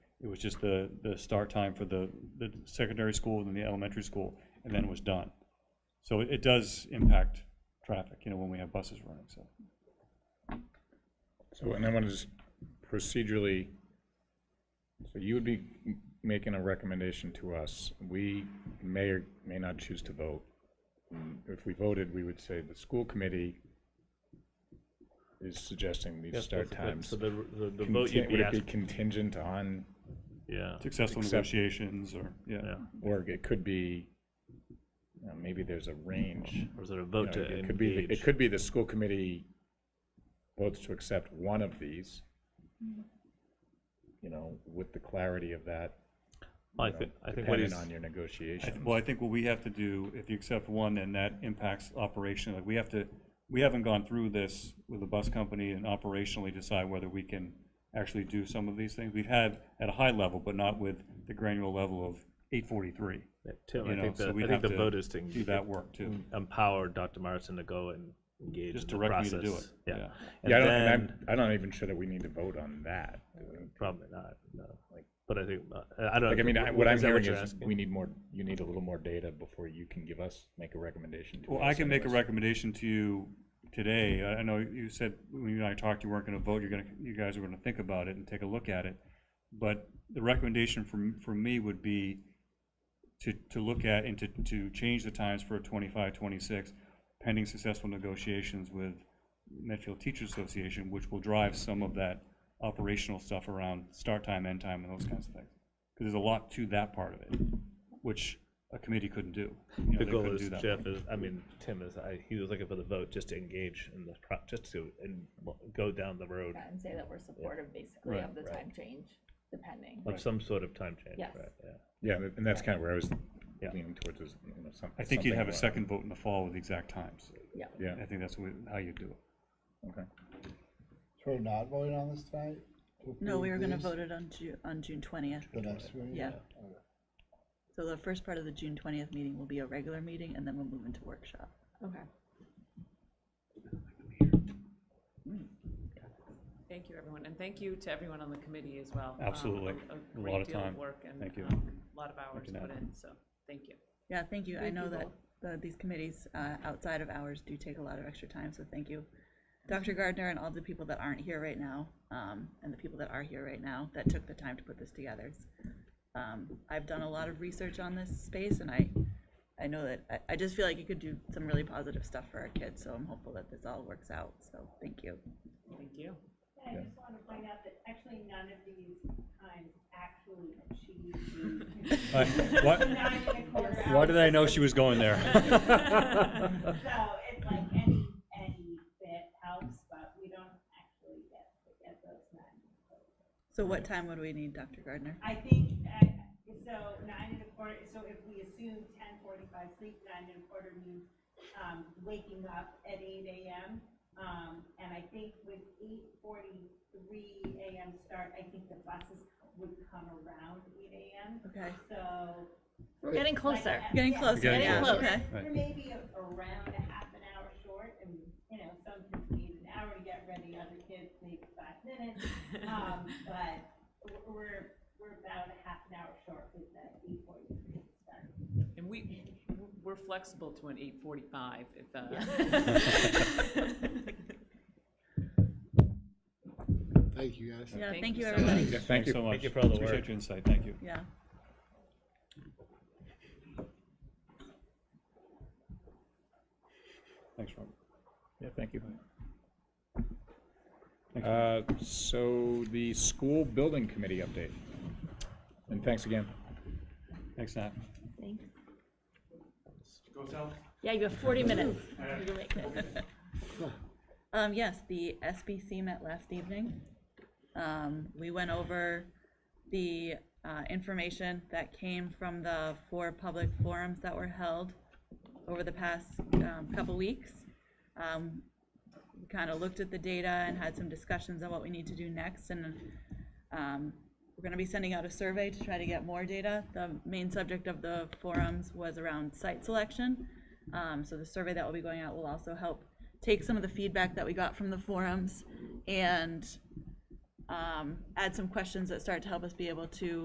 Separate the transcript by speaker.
Speaker 1: It was just the, the start time for the, the secondary school and then the elementary school, and then it was done. So it, it does impact traffic, you know, when we have buses running, so.
Speaker 2: So, and I want to just procedurally, so you would be making a recommendation to us. We may or may not choose to vote. If we voted, we would say the school committee is suggesting these
Speaker 3: Yes,
Speaker 2: start
Speaker 3: but- but-
Speaker 2: times.
Speaker 3: So the, the, the
Speaker 2: Contin-
Speaker 3: vote
Speaker 2: Would
Speaker 3: you'd be
Speaker 2: it be
Speaker 3: asking,
Speaker 2: contingent on,
Speaker 3: yeah,
Speaker 1: Successful
Speaker 2: Except-
Speaker 1: negotiations or, yeah.
Speaker 3: yeah.
Speaker 2: or it could be, you know, maybe there's a range.
Speaker 3: Or is it a
Speaker 2: you
Speaker 3: vote
Speaker 2: know,
Speaker 3: Oh, to
Speaker 2: It could be, the- it
Speaker 3: engage?
Speaker 2: could be the school committee votes to accept one of these, you know, with the clarity of that,
Speaker 3: I
Speaker 2: you know,
Speaker 3: think, I think what
Speaker 2: depending
Speaker 3: he's,
Speaker 2: on your
Speaker 1: I
Speaker 2: negotiations.
Speaker 1: th- Well, I think what we have to do, if you accept one, then that impacts operation, like, we have to, we haven't gone through this with the bus company and operationally decide whether we can actually do some of these things. We've had at a high level, but not with the granular level of eight forty-three,
Speaker 3: yeah, Tim,
Speaker 1: you
Speaker 3: I
Speaker 1: know,
Speaker 3: think the,
Speaker 1: so
Speaker 3: I
Speaker 1: we'd
Speaker 3: think
Speaker 1: have
Speaker 3: the
Speaker 1: to
Speaker 3: vote is to
Speaker 1: do
Speaker 3: en-
Speaker 1: that work too.
Speaker 3: empower Dr. Morrison to go and engage in
Speaker 1: Just
Speaker 3: the
Speaker 1: direct me to do it,
Speaker 3: process.
Speaker 1: yeah.
Speaker 3: Yeah.
Speaker 2: Yeah, I
Speaker 3: And
Speaker 2: don't, and I'm,
Speaker 3: then,
Speaker 2: I'm not even sure that we need to vote on that. do we?
Speaker 3: probably not, no, but I think, uh, I don't.
Speaker 2: Like, I mean, I-
Speaker 3: w-
Speaker 2: what I'm
Speaker 3: is that
Speaker 2: hearing
Speaker 3: you're
Speaker 2: is,
Speaker 3: asking?
Speaker 2: we need more, you need a little more data before you can give us, make a recommendation to us.
Speaker 1: Well, I can make a
Speaker 2: anyways.
Speaker 1: recommendation to you today. I I know you said, when you and I talked, you weren't gonna vote, you're gonna, you guys were gonna think about it and take a look at it. But the recommendation from, from me would be to, to look at and to, to change the times for 25, 26, pending successful negotiations with Medfield Teachers Association, which will drive some of that operational stuff around start time, end time, and those kinds of things. Because there's a lot to that part of it, which a committee couldn't do. You know,
Speaker 3: The
Speaker 1: they
Speaker 3: goal
Speaker 1: couldn't
Speaker 3: is
Speaker 1: do that.
Speaker 3: Jeff is, I mean, Tim is, I, he was looking for the vote just to engage in the, pro just to, and go down the road
Speaker 4: Yeah, and say that we're supportive basically
Speaker 1: Right,
Speaker 4: of the
Speaker 2: right.
Speaker 4: time change, depending.
Speaker 3: of some sort of time change,
Speaker 4: Yes.
Speaker 3: right, yeah.
Speaker 2: Yeah, and that's kind of where I was
Speaker 3: Yeah.
Speaker 2: leaning towards, is, you know, some- something.
Speaker 1: I think you'd have a
Speaker 2: around-
Speaker 1: second vote in the fall with the exact times.
Speaker 4: Yeah.
Speaker 2: Yeah,
Speaker 1: I think that's what- how you do it.
Speaker 2: okay.
Speaker 5: So we're not voting on this tonight? to
Speaker 6: No, we were
Speaker 5: approve
Speaker 6: gonna
Speaker 5: these
Speaker 6: vote it on Ju- on June twentieth,
Speaker 5: The next meeting?
Speaker 6: yeah. So the first part of the June twentieth meeting will be a regular meeting, and then we'll move into workshop.
Speaker 4: Okay.
Speaker 7: Thank you, everyone, and thank you to everyone on the committee as well. Um,
Speaker 1: Absolutely. A lot
Speaker 7: a- A
Speaker 1: of
Speaker 7: great deal
Speaker 1: time.
Speaker 7: of work and
Speaker 1: Thank you.
Speaker 7: um, a lot of hours
Speaker 1: Making that
Speaker 7: put
Speaker 1: happen.
Speaker 7: in, so, thank you.
Speaker 6: Yeah, thank you. I
Speaker 4: Thank
Speaker 6: know
Speaker 4: you
Speaker 6: that
Speaker 4: both.
Speaker 6: the, these committees, uh, outside of hours do take a lot of extra time, so thank you. Dr. Gardner and all the people that aren't here right now, um, and the people that are here right now that took the time to put this together. It's, Um, I've done a lot of research on this space and I, I know that, I, I just feel like you could do some really positive stuff for our kids, so I'm hopeful that this all works out, so thank you.
Speaker 7: Thank you.
Speaker 8: And I just want to point out that actually none of these times actually achieved the nine and a quarter
Speaker 1: Why did I
Speaker 8: hours.
Speaker 1: know she was going there?
Speaker 8: So it's like any, any bit helps, but we don't actually get, get those nine.
Speaker 6: So what time would we need, Dr. Gardner?
Speaker 8: I think, uh, so nine and a quarter, so if we assume ten forty-five sleep, nine and a quarter means, um, waking up at eight AM. Um, and I think with eight forty-three AM start, I think the buses would come around eight AM,
Speaker 6: Okay,
Speaker 8: so.
Speaker 4: We're getting closer.
Speaker 8: like,
Speaker 6: Getting
Speaker 8: yeah,
Speaker 6: closer,
Speaker 1: Getting
Speaker 6: yeah,
Speaker 4: closer.
Speaker 6: okay.
Speaker 8: We're maybe a- around a half an hour short, and, you know, some kids need an hour to get ready, other kids need five minutes. Um, but w- we're, we're about a half an hour short with that eight forty-three start.
Speaker 7: And we, we're flexible to an eight forty-five if, uh.
Speaker 5: Thank you, guys.
Speaker 6: Yeah,
Speaker 7: Thank
Speaker 6: thank
Speaker 7: you
Speaker 6: you,
Speaker 7: so
Speaker 6: everybody.
Speaker 2: Yeah, thank
Speaker 1: Thanks
Speaker 2: you.
Speaker 1: so much.
Speaker 3: you for all the
Speaker 1: Appreciate
Speaker 3: work.
Speaker 1: your insight, thank you.
Speaker 6: Yeah.
Speaker 1: Thanks, Robert.
Speaker 2: Yeah, thank you. Uh, So the school building committee update. And thanks again.
Speaker 1: Thanks, Nat.
Speaker 4: Thanks. Yeah, you have forty minutes. You're late.
Speaker 6: Um, yes, the SBC met last evening. Um, we went over the, uh, information that came from the four public forums that were held over the past, um, couple weeks. Um, we kind of looked at the data and had some discussions on what we need to do next and, um, we're gonna be sending out a survey to try to get more data. The main subject of the forums was around site selection. Um, so the survey that will be going out will also help take some of the feedback that we got from the forums and um, add some questions that start to help us be able to